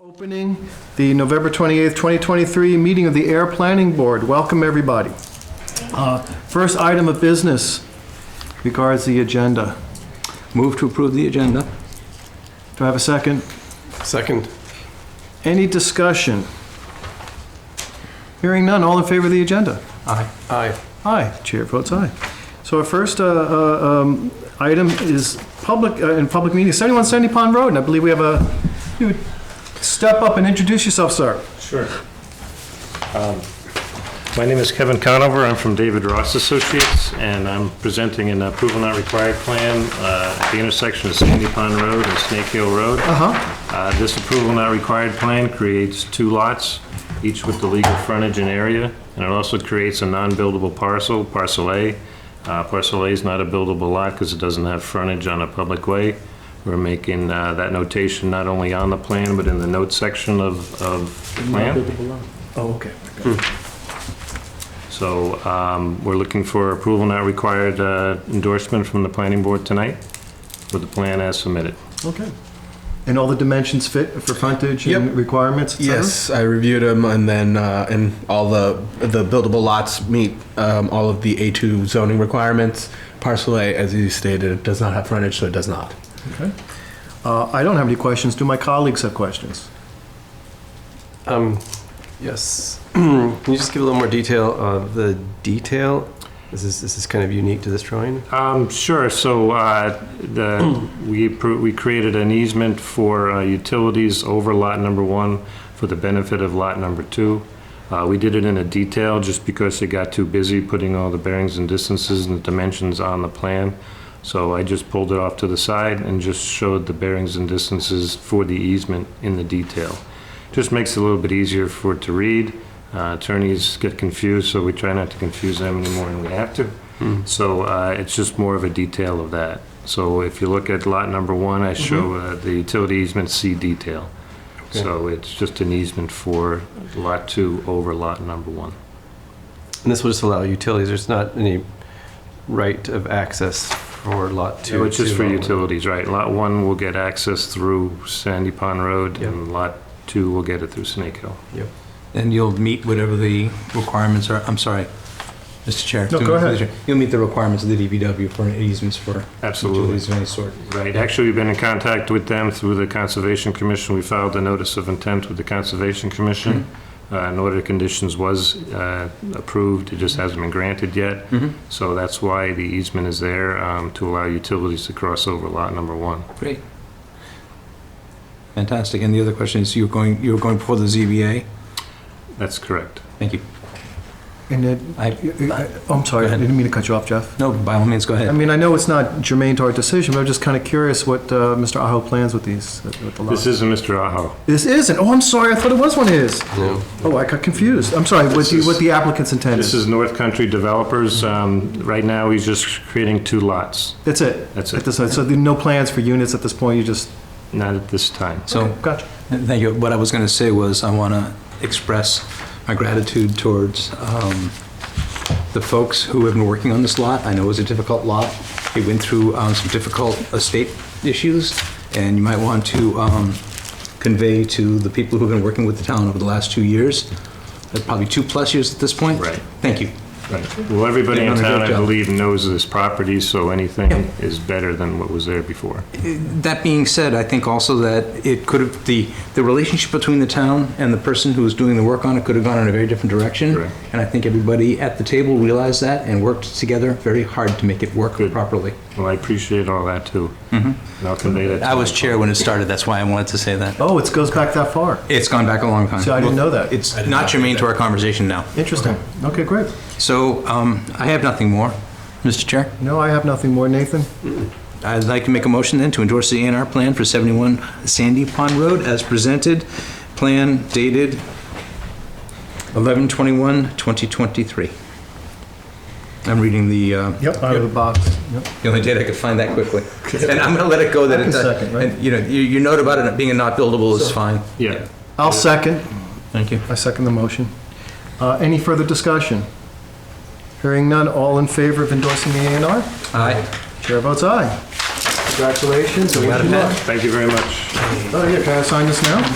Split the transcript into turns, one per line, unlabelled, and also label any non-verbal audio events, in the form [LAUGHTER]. Opening the November 28th, 2023 meeting of the Air Planning Board. Welcome, everybody. Uh, First item of business regards the agenda.
Move to approve the agenda.
Do I have a second?
Second.
Any discussion? Hearing none, all in favor of the agenda?
Aye.
Aye.
Aye, chair votes aye. So our first uh, uh, um, item is public, uh, in public meeting, 71 Sandy Pond Road, and I believe we have a, you would step up and introduce yourself, sir.
Sure. Um, My name is Kevin Conover, I'm from David Ross Associates, and I'm presenting an approval not required plan uh, at the intersection of Sandy Pond Road and Snake Hill Road.
Uh-huh,
Uh, This approval not required plan creates two lots, each with the legal frontage and area, and it also creates a non-buildable parcel, parcel A. Uh, Parcel A is not a buildable lot because it doesn't have frontage on a public way. We're making uh, that notation not only on the plan, but in the note section of, of the plan.
oh, okay.
So um, we're looking for approval not required uh, endorsement from the planning board tonight with the plan as submitted.
Okay. And all the dimensions fit for frontage and
Yep.
requirements? et cetera?
Yes, I reviewed them, and then uh, and all the the buildable lots meet um, all of the A2 zoning requirements. Parcel A, as you stated, does not have frontage, so it does not.
Okay. Uh, I don't have any questions. Do my colleagues have questions?
Um, yes. [CLEARS THROAT] Can you just give a little more detail of the detail? This is, this is kind of unique to this drawing.
Um, Sure, so uh, the, we, appro- we created an easement for uh, utilities over lot number one for the benefit of lot number two. Uh, We did it in a detail just because it got too busy putting all the bearings and distances and dimensions on the plan. So I just pulled it off to the side and just showed the bearings and distances for the easement in the detail. Just makes it a little bit easier for it to read. Uh, Attorneys get confused, so we try not to confuse them anymore than we have to.
Hmm.
So uh, it's just more of a detail of that. So if you look at lot number one, I show
Mm-hmm.
uh, the utility easement C detail. So it's just an easement for lot two over lot number one.
And this will just allow utilities, there's not any right of access for lot two.
Which is for
to-
utilities, right? Lot one will get access through Sandy Pond Road, and lot two will get it through Snake Hill.
And you'll meet whatever the requirements are, I'm sorry, Mr. Chair.
No, go ahead.
You'll meet the requirements of the DPW for easements for
Absolutely.
utilities of any sort.
Right, actually, we've been in contact with them through the Conservation Commission. We filed a notice of intent with the Conservation Commission.
Mm-hmm.
Uh, An order of conditions was uh, approved, it just hasn't been granted yet.
Mm-hmm.
So that's why the easement is there, um, to allow utilities to cross over lot number one.
Great. Fantastic. And the other question is, you're going, you're going before the ZBA?
That's correct.
Thank you.
And then,
I,
oh, I'm sorry, I
Go ahead.
didn't mean to cut you off, Jeff.
no, by all means, go
I
ahead.
mean, I know it's not germane to our decision, but I'm just kind of curious what uh, Mr. Aho plans with these, uh, with the lots.
This isn't Mr. Aho.
This isn't, oh, I'm sorry, I thought it was one of his.
No.
Oh, I got confused. I'm sorry, what the, what the applicant's intent
This
is.
is North Country Developers. Um, Right now, he's just creating two lots,
That's it?
That's
At
it.
this point, so there are no plans for units at this point, you just,
not at this time.
So,
gotcha.
Thank you. What I was going to say was, I want to express my gratitude towards um, the folks who have been working on this lot. I know it was a difficult lot. It went through um, some difficult estate issues, and you might want to um, convey to the people who've been working with the town over the last two years, uh, probably two-plus years at this point.
Right.
Thank you.
Right. Well, everybody in
They've done a
town,
good
I
job.
believe, knows this property, so anything is better than what was there before.
That being said, I think also that it could have, the, the relationship between the town and the person who was doing the work on it could have gone in a very different direction.
Correct.
And I think everybody at the table realized that and worked together very hard to make it work
Good.
properly.
Well, I appreciate all that, too. And I'll convey that to
Mm-hmm. I was
you.
chair when it started, that's why I wanted to say that.
Oh, it goes back that far.
It's gone back a long time.
See, I didn't know that.
It's not germane to our conversation now.
Interesting. Okay, great.
So um, I have nothing more, Mr. Chair.
No, I have nothing more, Nathan.
I'd like to make a motion then to endorse the A and R plan for 71 Sandy Pond Road as presented, plan dated 11/21/2023. I'm reading the, uh,
Yep. Out of the box. Yep.
the only date I could find that quickly. And I'm going to let it go that
I can
it's, uh,
second, right?
and, you know, your your note about it being a not buildable is fine.
Yeah.
I'll second.
Thank you.
I second the motion. Uh, Any further discussion? Hearing none, all in favor of endorsing the A and R?
Aye.
Chair votes aye. Congratulations. and
Got it,
wish you
Pat?
luck.
Thank you very much.
Oh, yeah, can I sign this now?